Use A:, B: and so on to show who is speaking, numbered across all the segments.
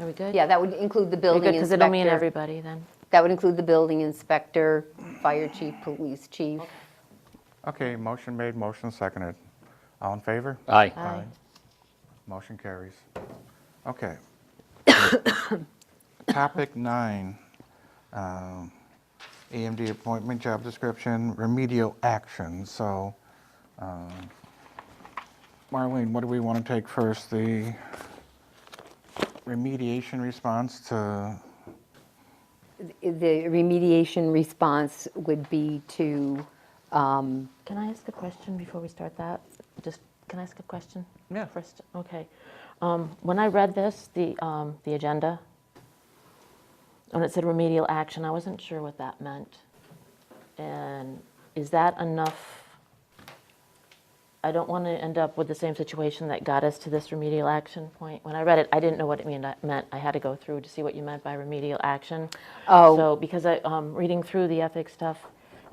A: Are we good?
B: Yeah, that would include the
A: We're
B: building
A: good,
B: inspector.
A: because it'll mean everybody then.
B: That would include the building inspector, fire chief, police chief.
C: Okay, motion made, motion seconded. All in favor?
D: Aye.
A: Aye.
C: Motion carries. Okay. Topic nine, um, EMD appointment, job description, remedial action. So, um, Marlene, what do we want to take first? The remediation response to,
B: The remediation response would be to, um,
A: Can I ask a question before we start that? Just, can I ask a question?
C: Yeah.
A: First, okay. Um, When I read this, the, um, the agenda, when it said remedial action, I wasn't sure what that meant. And is that enough? I don't want to end up with the same situation that got us to this remedial action point. When I read it, I didn't know what it mean- meant. I had to go through to see what you meant by remedial action.
B: Oh.
A: So because I, um, reading through the ethics stuff,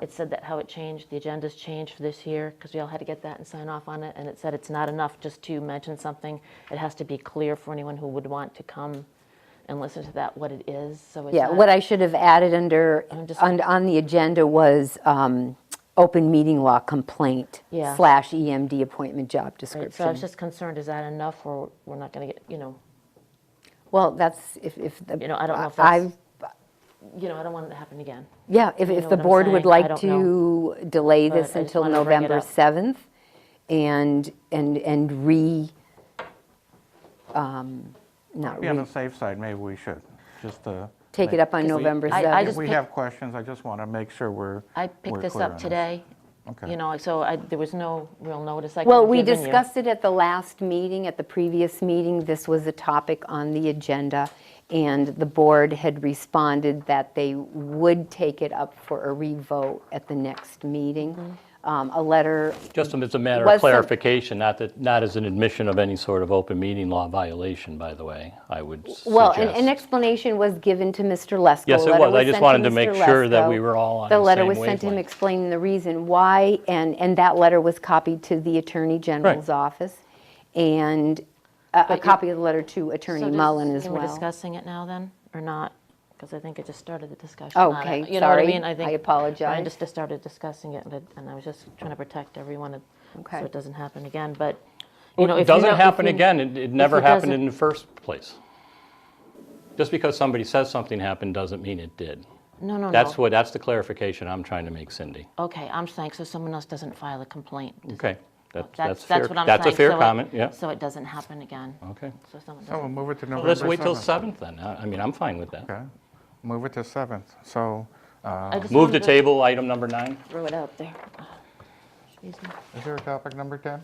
A: it said that how it changed, the agenda's changed for this year, because we all had to get that and sign off on it, and it said it's not enough just to mention something. It has to be clear for anyone who would want to come and listen to that, what it is, so it's
B: yeah,
A: not-
B: what I should have added under,
A: I'm just-
B: on, on the agenda was um, open meeting law complaint
A: Yeah.
B: slash EMD appointment job
A: Right, So I was
B: description.
A: just concerned, is that enough, or we're not going to get, you know,
B: Well, that's, if, if. the-
A: You know, I don't know if
B: I-
A: that's- you know, I don't want it to happen again.
B: Yeah, if,
A: You
B: if
A: know
B: the
A: what I'm
B: board would
A: saying? I
B: like
A: don't
B: to delay
A: But I
B: this
A: just
B: until
A: wanted to bring it
B: November
A: up.
B: 7th and, and, and re, um, not
C: be
B: re,
C: on the safe side, maybe we should, just to.
B: take it
C: make-
B: up on
C: we-
B: November
A: I- I
B: 7th.
A: just
C: If we
A: pick-
C: have questions, I just want to make sure we're.
A: I
C: we're
A: picked this
C: clear on
A: up today,
C: Okay.
A: you know, so I, there was no real notice I could
B: Well,
A: have
B: we
A: given you.
B: discussed it at the last meeting, at the previous meeting. This was a topic on the agenda, and the board had responded that they would take it up for a revote at the next meeting.
A: Mm-hmm.
B: Um, A letter,
D: Just as a matter
B: Was
D: of
B: some-
D: clarification, not that, not as an admission of any sort of open meeting law violation, by the way, I would suggest.
B: well, an- an explanation was given to Mr. Lesko.
D: Yes,
B: A
D: it
B: letter
D: was. I just
B: sent
D: wanted to
B: Mr.
D: make sure that
B: Lesko.
D: we were all on
B: The
D: the
B: letter
D: same
B: was sent to him
D: wavelength.
B: explaining the reason why, and, and that letter was copied to the Attorney General's office, and a- a
A: But you-
B: copy of the letter to Attorney
A: So does-
B: Mullen as
A: Can we
B: well.
A: discussing it now then, or not? Because I think it just started the discussion on it.
B: Okay,
A: You know what I
B: sorry.
A: mean?
B: I
A: think
B: apologize.
A: Brian just just started discussing it, and I- and I was just trying to protect everyone, and-
B: Okay.
A: so it doesn't happen again, but, you know,
D: Well,
A: if
D: It
A: you know-
D: doesn't
A: if
D: happen
A: you-
D: again. It it never
A: it
D: happened
A: doesn't-
D: in the first place. Just because somebody says something happened doesn't mean it did.
A: Oh, No, no, no.
D: That's what, that's the clarification I'm trying to make, Cindy.
A: Okay, I'm saying, so someone else doesn't file a complaint. Does-
D: Okay, that- that's
A: That's,
D: fair.
A: that's what I'm saying.
D: That's a fair
A: so it-
D: comment, yeah.
A: So it doesn't happen again.
D: Okay.
A: So someone
C: So Oh, we'll
A: doesn't.
C: move it to
D: Well,
C: November 7th.
D: Let's wait till 7th then. I I mean, I'm fine with that.
C: Okay, move it to 7th. So uh,
A: I just
D: Move
A: wanted
D: to table item number nine?
A: Throw it out there. Excuse me.
C: is there a topic number 10?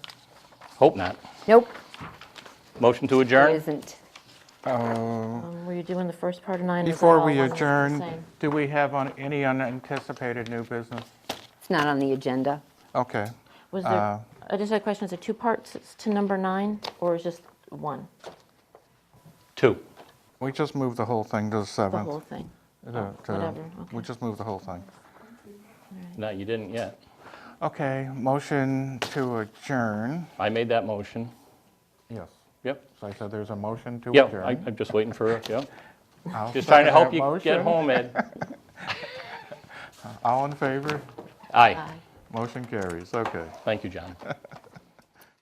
D: Hope not.
B: Nope,
D: Motion to
B: it
D: adjourn?
B: isn't.
A: Um, Were you doing the first part of nine? Is that
C: Uh, Before
A: all
C: we
A: one and the
C: adjourn,
A: same?
C: do we have on any unanticipated new business?
B: It's not on the agenda.
C: Okay,
A: Was
C: uh,
A: there, I just had a question, is there two parts to number nine, or is just one,
D: Two.
C: we just moved the whole thing to the 7th.
A: the whole thing?
C: To- to-
A: whatever,
C: We
A: okay.
C: just moved the whole thing.
D: No, you didn't yet.
C: Okay, motion to adjourn.
D: I made that motion.
C: Yes.
D: Yep.
C: So I said there's a motion to
D: Yeah,
C: adjourn.
D: I- I'm just waiting for, yeah.
C: I'll
D: Just trying to
C: second
D: help
C: that
D: you
C: motion.
D: get home, Ed.
C: All in favor?
D: Aye.
C: Motion carries, okay.
D: Thank you, John.